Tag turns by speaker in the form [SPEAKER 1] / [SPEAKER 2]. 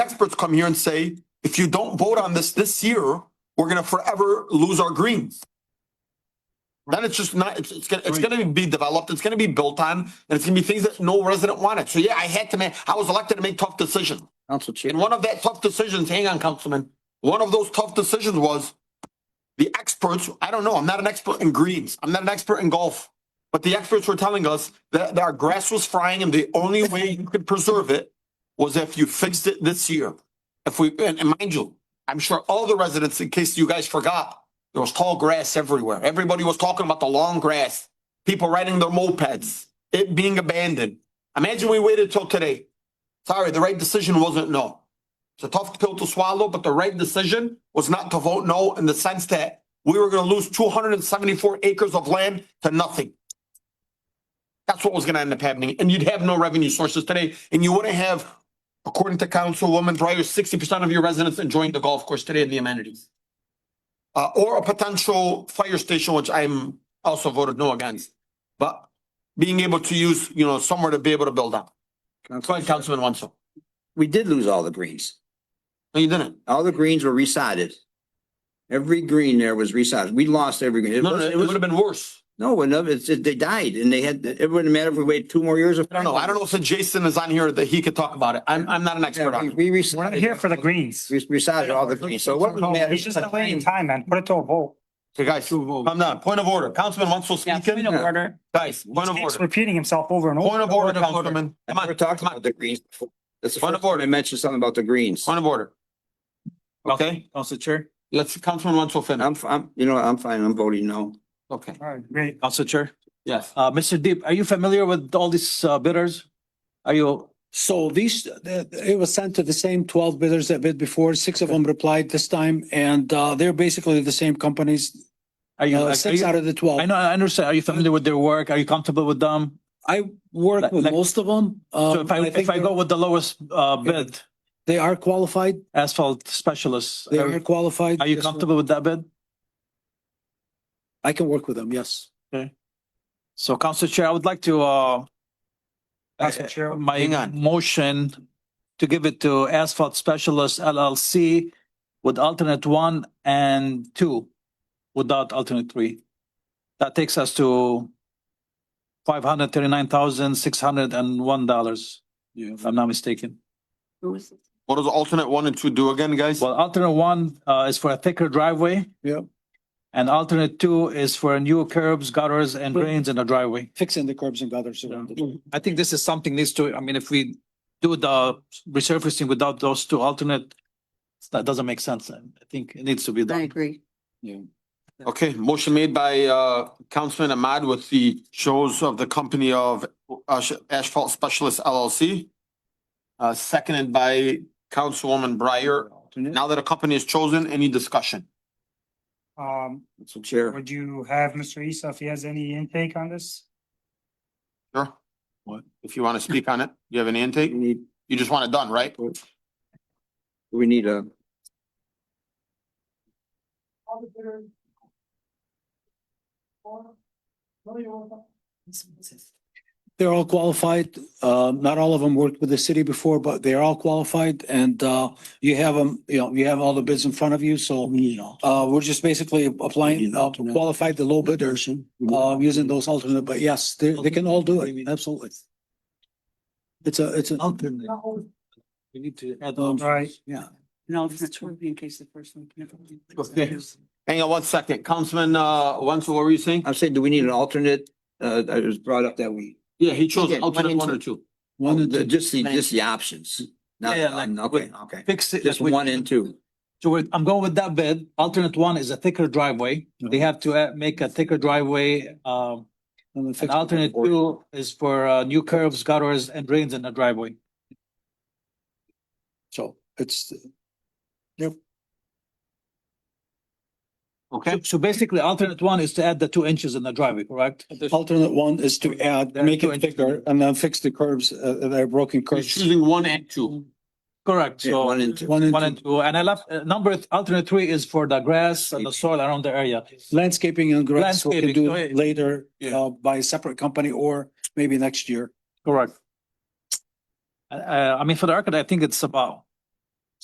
[SPEAKER 1] experts come here and say, if you don't vote on this this year, we're gonna forever lose our greens. Then it's just not, it's, it's gonna, it's
[SPEAKER 2] Right.
[SPEAKER 1] gonna be developed, it's gonna be built on, and it's gonna be things that no resident wanted. So yeah, I had to make, I was elected to make tough decisions.
[SPEAKER 2] Council Chair.
[SPEAKER 1] And one of that tough decisions, hang on, Councilman, one of those tough decisions was the experts, I don't know, I'm not an expert in greens, I'm not an expert in golf. But the experts were telling us that, that our grass was frying and the only way you could preserve it was if you fixed it this year. If we, and, and mind you, I'm sure all the residents, in case you guys forgot, there was tall grass everywhere. Everybody was talking about the long grass, people riding their mopeds, it being abandoned. Imagine we waited till today. Sorry, the right decision wasn't no. It's a tough pill to swallow, but the right decision was not to vote no in the sense that we were going to lose 274 acres of land to nothing. That's what was going to end up happening. And you'd have no revenue sources today. And you wouldn't have, according to Councilwoman Breyer, 60% of your residents enjoying the golf course today and the amenities. Uh, or a potential fire station, which I'm also voted no against, but being able to use, you know, somewhere to be able to build up. Go ahead, Councilman Wenzel.
[SPEAKER 2] We did lose all the greens.
[SPEAKER 1] No, you didn't.
[SPEAKER 2] All the greens were resided. Every green there was resided. We lost every green. It
[SPEAKER 1] No,
[SPEAKER 2] was-
[SPEAKER 1] no,
[SPEAKER 2] it
[SPEAKER 1] it
[SPEAKER 2] was-
[SPEAKER 1] would have been worse.
[SPEAKER 2] No, no, it's, it- they died and they had, it wouldn't matter if we waited two more years.
[SPEAKER 1] I don't know. I don't know if Jason is on here that he could talk about it. I'm, I'm not an expert on it.
[SPEAKER 2] We
[SPEAKER 3] We're not
[SPEAKER 2] resided.
[SPEAKER 3] here for the greens.
[SPEAKER 2] We resided all the greens. So what would matter?
[SPEAKER 3] It's just delaying time, man. Put it to a vote.
[SPEAKER 1] Okay, guys, I'm done. Point of order. Councilman Wenzel speaking.
[SPEAKER 3] order.
[SPEAKER 1] Guys, point of
[SPEAKER 3] Keeps
[SPEAKER 1] order.
[SPEAKER 3] repeating himself over and over.
[SPEAKER 1] uh, Point of order, Councilman.
[SPEAKER 2] I
[SPEAKER 1] Come on,
[SPEAKER 2] never talked
[SPEAKER 1] come
[SPEAKER 2] about
[SPEAKER 1] on.
[SPEAKER 2] the greens before. That's the
[SPEAKER 1] Point
[SPEAKER 2] first
[SPEAKER 1] of order.
[SPEAKER 2] time I mentioned something about the greens.
[SPEAKER 1] Point of order. Okay,
[SPEAKER 4] Council Chair,
[SPEAKER 1] let's, Councilman Wenzel finish.
[SPEAKER 2] I'm, f- I'm, you know, I'm fine. I'm voting no.
[SPEAKER 1] Okay,
[SPEAKER 3] All right, great.
[SPEAKER 4] Council Chair,
[SPEAKER 1] yes.
[SPEAKER 4] uh, Mr. Deep, are you familiar with all these uh, bidders? Are you,
[SPEAKER 5] So these, the- it was sent to the same twelve bidders that bid before, six of them replied this time, and uh, they're basically the same companies,
[SPEAKER 4] are you,
[SPEAKER 5] uh,
[SPEAKER 4] are
[SPEAKER 5] six
[SPEAKER 4] you,
[SPEAKER 5] out of the twelve.
[SPEAKER 4] I know, I understand. Are you familiar with their work? Are you comfortable with them?
[SPEAKER 5] I work
[SPEAKER 4] Like-
[SPEAKER 5] with
[SPEAKER 4] like-
[SPEAKER 5] most of them. uh,
[SPEAKER 4] So if I, if I go with the lowest, uh, bid,
[SPEAKER 5] They are qualified,
[SPEAKER 4] asphalt specialists,
[SPEAKER 5] they
[SPEAKER 4] are
[SPEAKER 5] are qualified.
[SPEAKER 4] are you
[SPEAKER 5] Yes, sir.
[SPEAKER 4] comfortable with that bid?
[SPEAKER 5] I can work with them, yes.
[SPEAKER 4] So Council Chair, I would like to, uh,
[SPEAKER 3] Council
[SPEAKER 1] Uh,
[SPEAKER 3] Chair.
[SPEAKER 1] Hang
[SPEAKER 4] my
[SPEAKER 1] on.
[SPEAKER 4] motion to give it to Asphalt Specialist LLC with alternate one and two without alternate three. That takes us to five hundred thirty-nine thousand, six hundred and one dollars, if I'm not mistaken.
[SPEAKER 1] What does alternate one and two do again, guys?
[SPEAKER 4] Well, alternate one, uh, is for a thicker driveway.
[SPEAKER 5] Yep.
[SPEAKER 4] And alternate two is for new curbs, gutters and drains in the driveway.
[SPEAKER 5] Fixing the curbs and gutters around it.
[SPEAKER 4] I think this is something needs to, I mean, if we do the resurfacing without those two alternate, that doesn't make sense. I think it needs to be done.
[SPEAKER 6] agree.
[SPEAKER 1] Okay, motion made by, uh, Councilman Ahmad with the shows of the company of uh, Ash- Asphalt Specialist LLC. Uh, seconded by Councilwoman Breyer. Now that a company is chosen, any discussion?
[SPEAKER 3] Um,
[SPEAKER 2] Council Chair.
[SPEAKER 3] would you have Mr. Issa if he has any intake on this?
[SPEAKER 1] Sure. What? If you want to speak on it, you have any intake?
[SPEAKER 2] We need,
[SPEAKER 1] You just want it done, right?
[SPEAKER 2] we need a,
[SPEAKER 5] They're all qualified. Uh, not all of them worked with the city before, but they're all qualified and, uh, you have them, you know, you have all the bids in front of you, so. Uh, we're just basically applying, uh, qualified the low bidders, uh, using those alternate, but yes, they, they can all do it, absolutely. It's a, it's a,
[SPEAKER 4] Alternate. We need to add
[SPEAKER 5] Um,
[SPEAKER 4] on.
[SPEAKER 3] Right.
[SPEAKER 5] yeah.
[SPEAKER 6] No, it's not true in case the first one. can never-
[SPEAKER 1] Okay. Hang on one second. Councilman, uh, Wenzel, what were you saying?
[SPEAKER 2] I'm saying, do we need an alternate? Uh, I was brought up that we,
[SPEAKER 1] Yeah, he chose
[SPEAKER 2] Yeah, one
[SPEAKER 1] alternate
[SPEAKER 2] and
[SPEAKER 1] one or two.
[SPEAKER 5] One and
[SPEAKER 2] the-
[SPEAKER 5] two.
[SPEAKER 2] Oh, just the, just the options. Not, um,
[SPEAKER 4] Yeah, like-
[SPEAKER 2] okay, okay.
[SPEAKER 4] Fix it.
[SPEAKER 2] Just
[SPEAKER 4] like we-
[SPEAKER 2] one and two.
[SPEAKER 4] So we're, I'm going with that bid. Alternate one is a thicker driveway. They have to uh, make a thicker driveway. Um,
[SPEAKER 5] And then fix
[SPEAKER 4] and
[SPEAKER 5] it.
[SPEAKER 4] alternate two is for, uh, new curves, gutters and drains in the driveway.
[SPEAKER 5] So it's,
[SPEAKER 1] Okay,
[SPEAKER 4] So basically alternate one is to add the two inches in the driveway, correct?
[SPEAKER 5] alternate one is to add,
[SPEAKER 4] There are
[SPEAKER 5] make
[SPEAKER 4] two
[SPEAKER 5] it
[SPEAKER 4] inches.
[SPEAKER 5] thicker and then fix the curves, uh, they're broken
[SPEAKER 1] he's
[SPEAKER 5] curves.
[SPEAKER 1] choosing one and two.
[SPEAKER 4] Correct.
[SPEAKER 2] Yeah,
[SPEAKER 4] So.
[SPEAKER 2] one and two.
[SPEAKER 5] One
[SPEAKER 4] One
[SPEAKER 5] and
[SPEAKER 4] and
[SPEAKER 5] two.
[SPEAKER 4] two, and I left, uh, number, th- alternate three is for the grass and the soil around the area.
[SPEAKER 5] Landscaping and grass, we can
[SPEAKER 4] Landscaping,
[SPEAKER 5] do
[SPEAKER 4] so it-
[SPEAKER 5] later,
[SPEAKER 4] Yeah.
[SPEAKER 5] uh, by a separate company or maybe next year.
[SPEAKER 4] uh, Correct. Uh, I mean, for the record, I think it's about